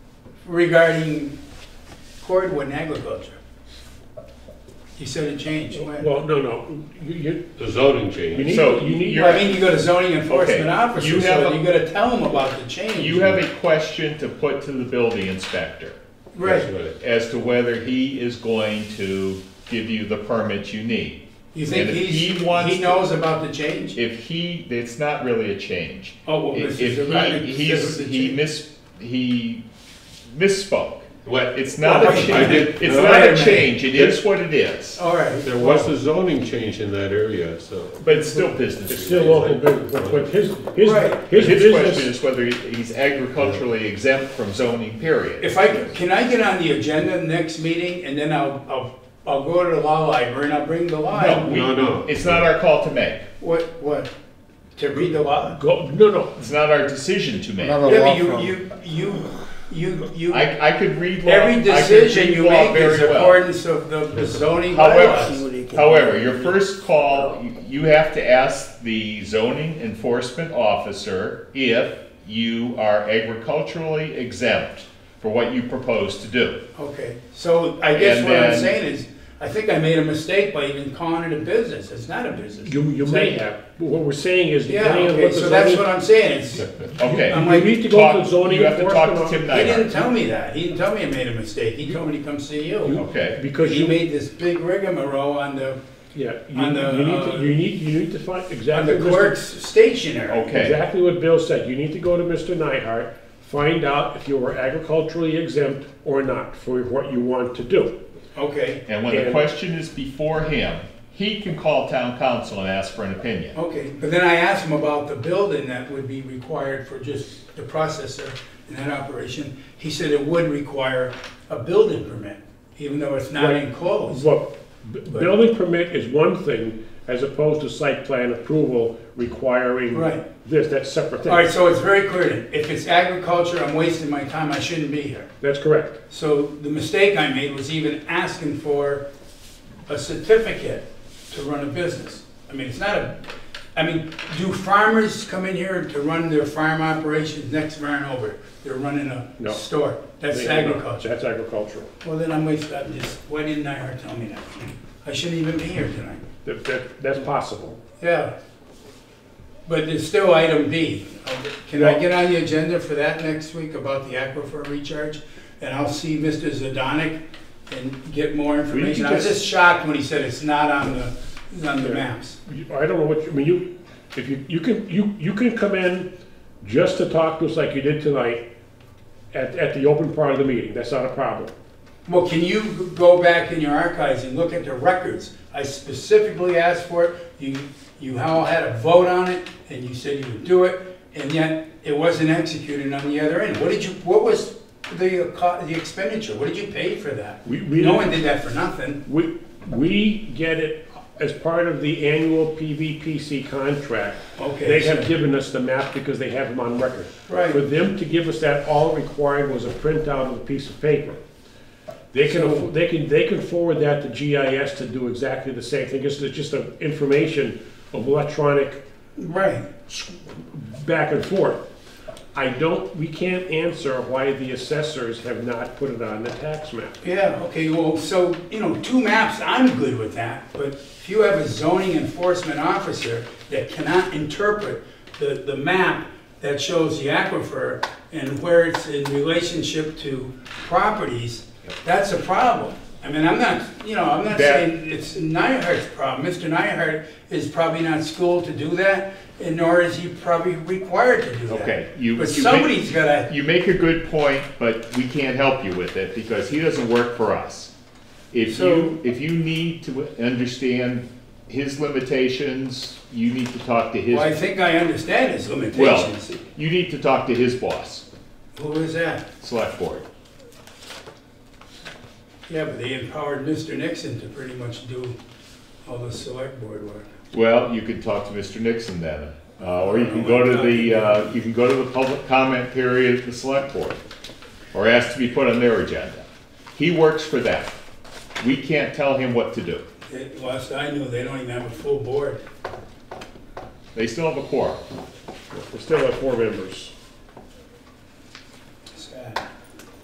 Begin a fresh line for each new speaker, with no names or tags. regarding cordwood and agriculture. You said it changed. When-
Well, no, no, you, you,
The zoning
you
change.
need,
So,
you need.
you're-
I mean, you go to zoning enforcement
Okay,
officer,
you have
so
a-
you gotta tell them about the change.
You have a question to put to the building inspector
Right.
as to whether he is going to give you the permit you need.
You think
And if
he's,
he wants
he
to-
knows about the change?
If he, it's not really a change.
Oh, well,
If
this is.
if he, he's, he
missed.
mis, he misspoke.
What,
It's not
Well,
a
I-
I
change,
did-
it's
no,
not
wait a
a
minute.
change, it is what it is,
All right.
there was a zoning change in that area, so.
Oh.
but it's still business.
It's still local business, but, but his, his,
Right.
his
His question
business,
is whether he- he's agriculturally exempt from zoning, period.
If I, can I get on the agenda next meeting and then I'll, I'll, I'll go to the law library and I'll bring the
No,
law?
we-
No, no.
It's not our call to make,
What, what? To read the law?
go, no, no,
it's not our decision to make.
Another
Yeah,
law
but you,
firm.
you, you, you, you,
I, I could read law. I
every
could
decision
read
you
law
make is
very well.
accordance of the zoning bylaws.
However, however, your first call, you- you have to ask the zoning enforcement officer if you are agriculturally exempt for what you propose to do.
Okay, so I guess
And
what I'm
then-
saying is, I think I made a mistake by even calling it a business, it's not a business.
you, you may have, but what we're saying is,
Yeah,
depending on
okay,
what the
so that's what
zoning.
I'm saying, it's, he
Okay.
I'm
You need to go to the
Talk-
zoning
You have to talk
enforcement
to Tim
officer,
Nygaard.
didn't tell me that, he didn't tell me I made a mistake, he told me to come see you.
Okay.
because
He
you,
made this big rigmarole on the,
yeah, you,
on the,
you need,
uh,
to- you need, you need to find
on
exactly.
the
Mr.
clerk's stationery.
Okay.
Exactly what Bill said, you need to go to Mr. Nyhart, find out if you were agriculturally exempt or not for what you want to do.
Okay,
And when the
And-
question is before him, he can call town council and ask for an opinion.
okay, but then I asked him about the building that would be required for just the processor and that operation. He said it would require a building permit, even though it's not
Right.
enclosed.
Look, b- building permit is one thing as opposed to site plan approval requiring
Right.
this, that's separate
All right,
thing.
so it's very clear, then. if it's agriculture, I'm wasting my time, I shouldn't be here.
That's correct.
So the mistake I made was even asking for a certificate to run a business. I mean, it's not a, I mean, do farmers come in here to run their farm operations next round over? They're running a
No.
store, that's
They-
agriculture.
That's agricultural.
Well, then I'm wasting, I'm just, why didn't I tell me that? I shouldn't even be here tonight.
That, that, that's possible.
Yeah. But it's still item B. Can I get on the agenda for that next week about the aquifer recharge? And I'll see Mr. Zadonic and get more information. I was just shocked when he said it's not on the, on the maps.
You- I don't know what, you I mean, you, if you, you can, you, you can come in just to talk to us like you did tonight at, at the open part of the meeting, that's not a problem.
Well, can you go back in your archives and look at the records? I specifically asked for it, you, you all had a vote on it, and you said you would do it, and yet it wasn't executed on the other end. What did you, what was the, uh, co- the expenditure? What did you pay for that?
We- we
No
didn't-
one did that for nothing.
We, we get it as part of the annual PVPC contract.
Okay,
They have
so-
given us the map because they have them on record.
Right.
For them to give us that, all required was a printout of a piece of paper. They can, affo- they can, they can forward that to GIS to do exactly the same thing, it's it's just a information of electronic
Right.
back and forth. I don't, we can't answer why the assessors have not put it on the tax map.
Yeah, okay, well, so, you know, two maps, I'm good with that, but if you have a zoning enforcement officer that cannot interpret the, the map that shows the aquifer and where it's in relationship to properties, that's a problem. I mean, I'm not, you know, I'm not
That-
saying it's Nyhart's problem. Mr. Nyhart is probably not schooled to do that, and nor is he probably required to do that.
Okay, you-
But
you make-
somebody's gotta
You make a good point, but we can't help you with it because he doesn't work for us. If
So-
you, if you need to understand his limitations, you need to talk to
Well, I
his,
think I understand his
well,
limitations.
you need to talk to his boss,
Who is that?
select board.
Yeah, but they empowered Mr. Nixon to pretty much do all the select board work.
Well, you can talk to Mr. Nixon then, uh, or you can go to the, uh, you can go to the public comment period at the select board, or ask to be put on their agenda. He works for them. We can't tell him what to do.
It- Last I knew, they don't even have a full board.
They still have a quorum.
We still have four members.